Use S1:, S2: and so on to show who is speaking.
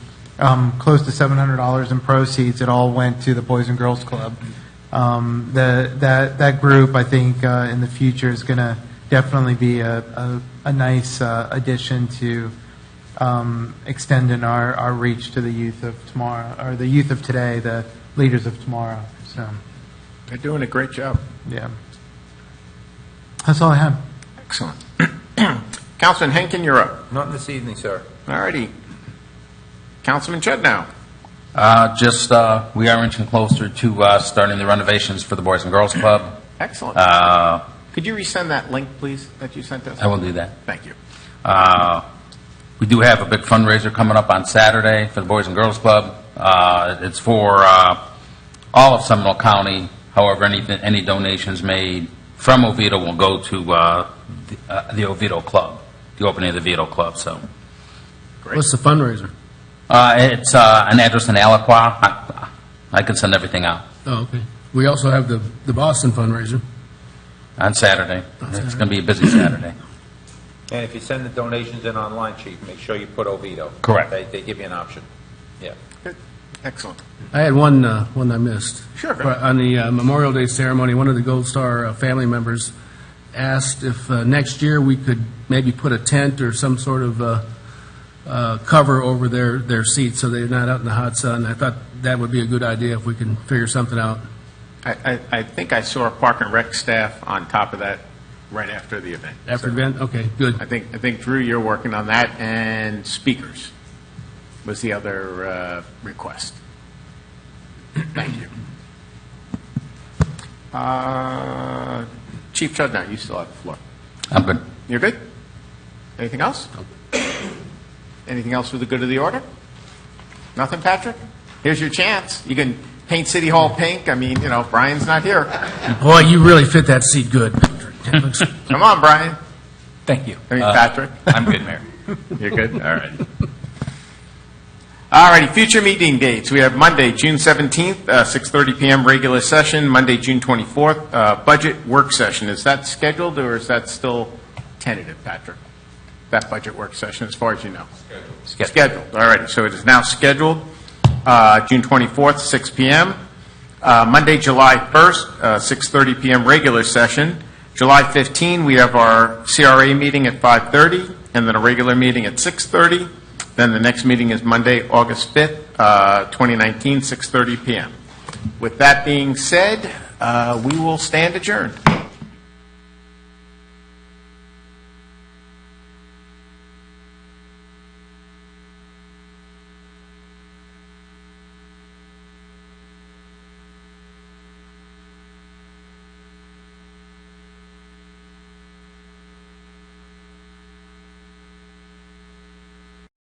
S1: um, close to $700 in proceeds. It all went to the Boys and Girls Club. Um, the, that, that group, I think, uh, in the future is going to definitely be a, a, a nice uh, addition to um, extending our, our reach to the youth of tomorrow, or the youth of today, the leaders of tomorrow. So,
S2: They're doing a great job.
S1: yeah. That's all I have.
S2: Excellent. Councilman Henkin, you're up.
S3: Not this evening, sir.
S2: All righty. Councilman Chudnow.
S4: Uh, Just, uh, we are inching closer to uh, starting the renovations for the Boys and Girls Club.
S2: Excellent.
S4: Uh,
S2: Could you resend that link, please, that you sent us?
S4: I will do that.
S2: Thank you.
S4: Uh, We do have a big fundraiser coming up on Saturday for the Boys and Girls Club. Uh, It's for uh, all of Seminole County, however, any any donations made from Oviedo will go to uh, the uh, the Oviedo Club, the opening of the Oviedo Club, so.
S5: What's the fundraiser?
S4: Uh, It's uh, an address in Aliqua. I- I can send everything out
S5: Oh, okay. We also have the, the Boston fundraiser.
S4: on Saturday. It's going to be a busy Saturday.
S3: And if you send the donations in online, chief, make sure you put Oviedo.
S4: Correct.
S3: They, they give you an option. Yeah.
S2: Good. Excellent.
S5: I had one, uh, one I missed.
S2: Sure.
S5: But On the uh, Memorial Day ceremony, one of the Gold Star uh, family members asked if uh, next year we could maybe put a tent or some sort of uh, uh, cover over their, their seats so they're not out in the hot sun. I thought that would be a good idea if we can figure something out.
S2: I, I, I think I saw Park and Rec staff on top of that right after the event.
S5: After
S2: So
S5: the event, okay, good.
S2: I think, I think Drew, you're working on that, and speakers was the other uh, request. Thank you. Uh, Chief Chudnow, you still have the floor.
S4: I'm good.
S2: You're good? Anything else? Anything else for the good of the order? Nothing, Patrick? Here's your chance. You can paint City Hall pink. I mean, you know, Brian's not here.
S5: Boy, you really fit that seat good, Patrick. That looks-
S2: Come on, Brian.
S4: Thank you.
S2: I mean, Patrick.
S4: Uh, I'm good, Mayor.
S2: You're good? All right. All righty, future meeting dates. We have Monday, June 17th, uh, 6:30 PM, regular session. Monday, June 24th, uh, budget work session. Is that scheduled, or is that still tentative, Patrick? That budget work session, as far as you know?
S4: Scheduled.
S2: Scheduled, all righty. So it is now scheduled, uh, June 24th, 6 PM. Uh, Monday, July 1st, uh, 6:30 PM, regular session. July 15, we have our CRA meeting at 5:30, and then a regular meeting at 6:30. Then the next meeting is Monday, August 5th, uh, 2019, 6:30 PM. With that being said, uh, we will stand adjourned.